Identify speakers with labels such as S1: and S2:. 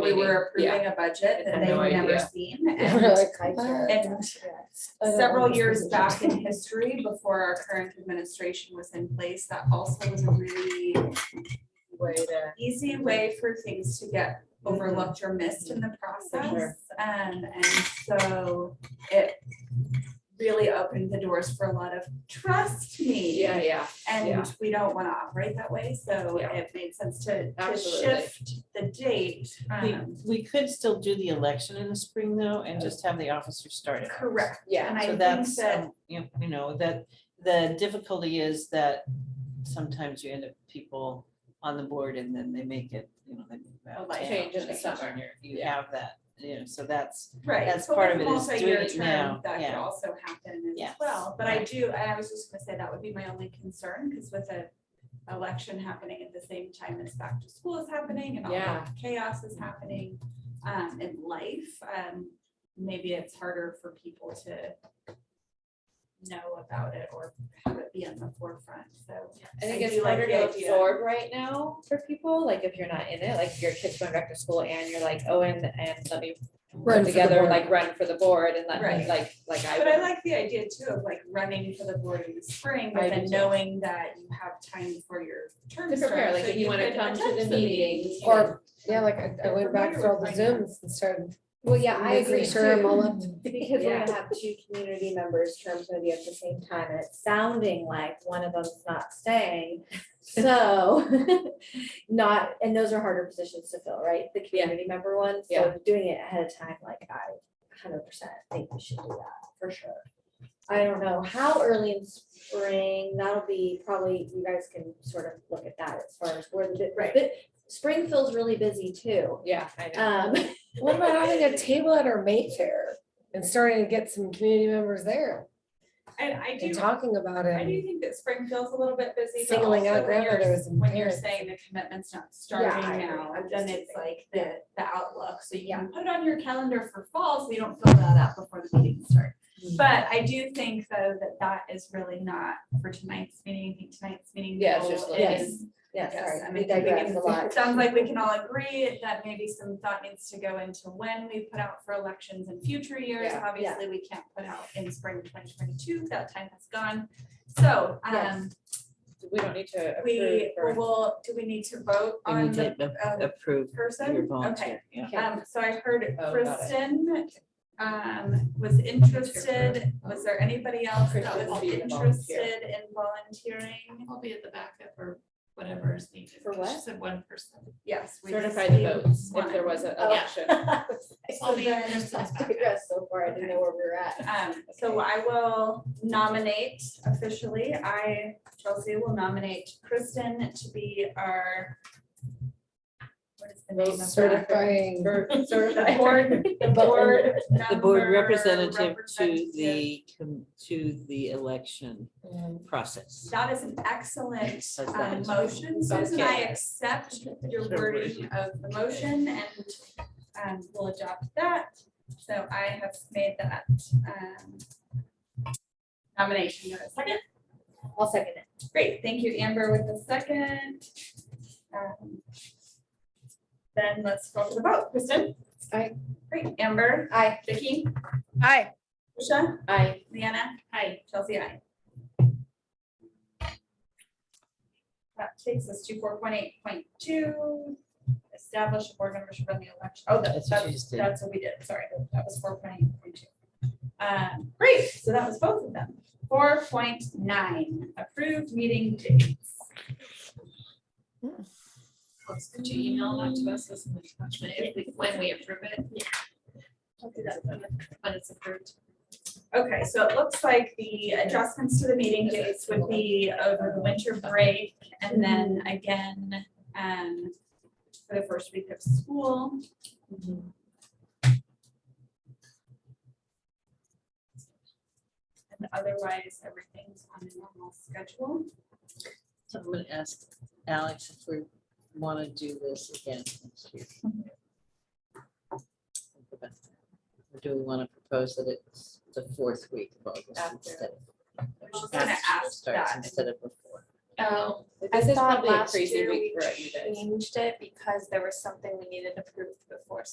S1: we were
S2: Yeah.
S1: approving a budget that
S2: Had
S1: they
S2: no
S1: had never
S2: idea.
S1: seen.
S3: Yeah,
S1: and-
S3: we're like, I can't.
S1: And several years back in history, before our current administration was in place, that also was a really
S2: Way to.
S1: easy way for things to get overlooked or missed in the
S2: Mm-hmm.
S1: process. Um, and so it really opened the doors for a lot of, trust me.
S2: Yeah, yeah, yeah.
S1: And we don't wanna operate that way, so
S2: Yeah.
S1: it made sense to, to
S2: Absolutely.
S1: shift the date.
S4: We,
S1: um,
S4: we could still do the election in the spring though, and just have the officers start it.
S1: Correct,
S2: yeah.
S1: and I
S4: So
S1: think
S4: that's,
S1: that,
S4: um, you you know, that, the difficulty is that sometimes you end up people on the board and then they make it, you know, they move
S1: Oh,
S4: out.
S1: like
S4: town,
S2: change in
S4: and
S2: the
S4: so
S2: summer.
S4: you're- You
S2: Yeah.
S4: have that, you know, so that's,
S1: right.
S4: that's
S1: but
S4: part
S1: with
S4: of it is
S1: multi-year
S4: doing it
S1: term,
S4: now,
S1: That could
S4: yeah.
S1: also happen as
S4: Yes,
S1: well, but I
S4: right.
S1: do, I was just gonna say that would be my only concern, cause with a election happening at the same time as back to school is happening and all
S2: Yeah.
S1: that chaos is happening, um, in life, um, maybe it's harder for people to know about it or have it be on the forefront, so.
S2: I think
S1: I
S2: it's
S1: do like
S2: harder
S1: the
S2: to
S1: idea.
S2: absorb right now for people, like if you're not in it, like if your kid's going back to school and you're like, oh, and, and let me run
S3: Run for the
S2: together,
S3: board.
S2: like run for the board and let me,
S1: Right.
S2: like, like I
S1: But I
S2: would.
S1: like the idea too of like running for the board in the spring,
S2: I
S1: but
S2: do
S1: then
S2: too.
S1: knowing that you have time for your term
S2: To
S1: start.
S2: prepare, like
S1: so
S2: if you wanna
S1: could
S2: come to
S1: attend
S2: the meetings.
S1: meetings.
S3: Or, yeah, like I, I
S1: They're
S3: went back
S1: familiar
S3: through all the
S1: with finance.
S3: Zooms and started.
S5: Well, yeah, I
S3: making
S5: agree
S3: Sure, I'm all
S5: too,
S3: up.
S5: because we're
S2: Yeah.
S5: gonna have two community members' terms gonna be at the same time, and it's sounding like one of them's not staying. So, not, and those are harder positions to fill, right? The community member ones, so
S2: Yeah.
S5: doing it ahead of time, like I hundred percent think we should do that, for sure. I don't know, how early in spring, that'll be probably, you guys can sort of look at that as far as where the, bu-
S2: Right.
S5: but spring feels really busy too.
S2: Yeah, I know.
S5: Um,
S3: What about having a table at our Mayfair and starting to get some community members there
S1: And I
S3: and
S1: do,
S3: talking about it?
S1: I do think that spring feels a little bit busy, but
S3: Singling
S1: also
S3: out
S1: when you're,
S3: grandmothers and
S1: when you're
S3: parents.
S1: saying the commitment's not
S5: I
S1: starting
S5: agree.
S1: now,
S5: I'm
S1: then
S5: just
S1: it's
S5: teasing.
S1: like
S5: Yeah.
S1: the, the outlook, so you
S5: Yeah.
S1: can put it on your calendar for fall, so you don't fill that out before the meetings start.
S4: Mm.
S1: But I do think though that that is really not for tonight's meeting, I think tonight's meeting
S2: Yeah, it's
S1: goal
S2: just like-
S1: is
S5: yeah,
S1: Yes, I
S5: sorry, we
S1: mean, I think we
S5: digress a
S1: can,
S5: lot.
S1: it sounds like we can all agree that maybe some thought needs to go into when we put out for elections in future years.
S2: Yeah.
S1: Obviously, we can't put out in spring twenty twenty-two, that time has gone. So, um,
S2: We don't need to approve
S1: we
S2: for.
S1: will, do we need to vote
S4: We
S1: on
S4: need
S1: the
S4: to ap-
S1: uh,
S4: approve your
S1: person? Okay.
S4: volunteer, yeah.
S1: Um, so I heard
S2: Oh, got it.
S1: Kristen, um, was interested. Was there anybody else that was
S2: Kristen will be the volunteer.
S1: interested in volunteering?
S6: I'll be at the backup or whatever is needed.
S5: For
S6: because She
S5: what?
S6: said one person.
S1: Yes. we just
S2: Certify the
S1: need
S2: votes if
S1: one.
S2: there was an
S5: Oh.
S2: election.
S6: I'll be
S5: So
S6: in
S5: then-
S6: Kristen's
S5: I
S6: backup.
S5: digress so far, I didn't know where we were at.
S1: Um, so I will nominate officially, I, Chelsea, will nominate Kristen to be our. What is the name of that?
S3: Certifying.
S2: For
S1: The
S2: certified.
S1: board, the board
S4: The board
S1: member
S4: representative to
S1: representative. Mm-hmm.
S4: the, com- to the election process.
S1: That is an excellent
S4: How's that?
S1: um, motion, Susan, I
S2: Okay.
S1: accept your wording of the motion and um, we'll adopt that. So I have made that um, nomination, Do I have a second?
S5: I'll second it.
S1: Great, thank you, Amber, with the second. Um, Then let's go to the vote. Kristen?
S3: Aye.
S1: Great, Amber? Aye. Vicky?
S3: Hi.
S1: Tricia?
S2: I,
S1: Leanna? Aye. Chelsea, aye. That takes us to four point eight point two, establish a board member should run the election. Oh, that-
S4: That's what
S1: that's,
S4: you just did.
S1: that's what we did, sorry, that was four point eight point two. Um, great, so that was both of them. Four point nine, approved meeting dates.
S6: Let's get you email that to us as an attachment if we, when we approve it. When it's approved.
S1: Okay, so it looks like the adjustments to the meeting dates would be over the winter break and then again, um, for the first week of school. And otherwise, everything's on a normal schedule.
S4: So I'm gonna ask Alex if we wanna do this again next year. Or do we wanna propose that it's the fourth week of August
S2: After.
S4: instead
S1: I
S4: of?
S1: was gonna ask
S4: Starts
S1: that.
S4: instead of before.
S6: Oh,
S2: this is
S5: Um,
S7: thought
S2: probably a
S7: last
S2: crazy
S7: year
S2: week
S7: we
S2: for you guys.
S7: changed it because there was something we needed to prove